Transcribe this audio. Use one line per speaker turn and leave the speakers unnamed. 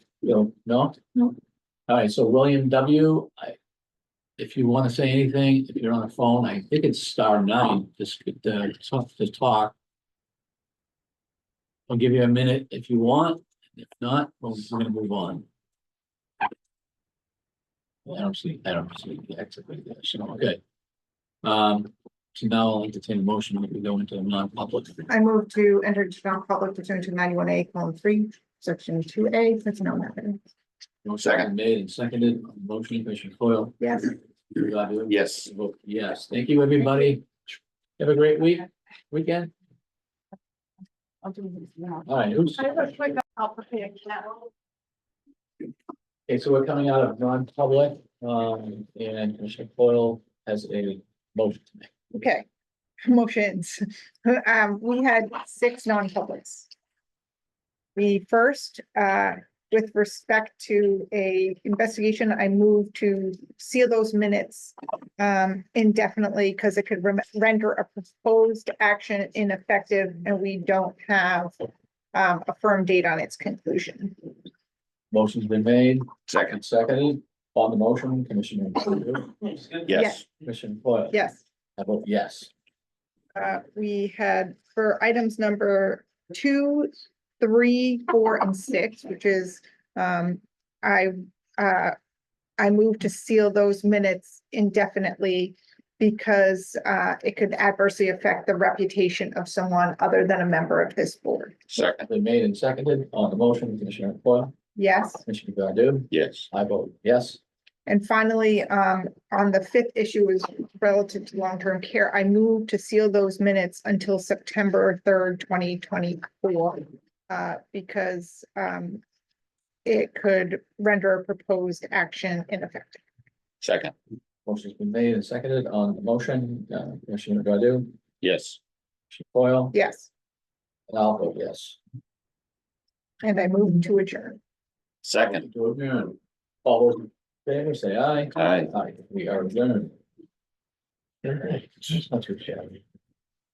Bill, no?
No.
All right, so William W., I, if you want to say anything, if you're on the phone, I think it's star nine, just, uh, tough to talk. I'll give you a minute if you want, if not, we'll- we're gonna move on. Well, I don't see, I don't see the exit right there, so, okay. Um, so now I'll entertain a motion that we go into a non-public.
I move to enter into non-public pursuant to ninety-one A, column three, section two A, personnel matter.
Motion been made and seconded, On the motion, Commissioner Coyle.
Yes.
Godu?
Yes.
Vote Yes, thank you, everybody. Have a great week, weekend. All right, who's,
I have a quick, I'll prepare that one.
okay, so we're coming out of non-public, um, and Commissioner Coyle has a motion to make.
Okay, motions. Um, we had six non-publics. The first, uh, with respect to a investigation, I moved to seal those minutes um, indefinitely because it could rem- render a proposed action ineffective and we don't have um, a firm date on its conclusion.
Motion's been made
Second,
and seconded. On the motion, Commissioner Godu?
yes,
Commissioner Coyle?
Yes.
I vote yes.
Uh, we had for items number two, three, four, and six, which is, um, I, uh, I moved to seal those minutes indefinitely because, uh, it could adversely affect the reputation of someone other than a member of this board.
second,
Been made and seconded. On the motion, Commissioner Coyle?
Yes?
Commissioner Godu?
yes,
I vote yes.
And finally, um, on the fifth issue is relative to long-term care. I moved to seal those minutes until September third, twenty twenty-four. Uh, because, um, it could render a proposed action ineffective.
second,
Motion's been made and seconded. On the motion, uh, Commissioner Godu?
yes,
Commissioner Coyle?
Yes,
And I'll vote yes.
and I moved to adjourn.
second,
To adjourn. All those in favor say aye.
aye.
Aye, we are adjourned. All right, that's your chat.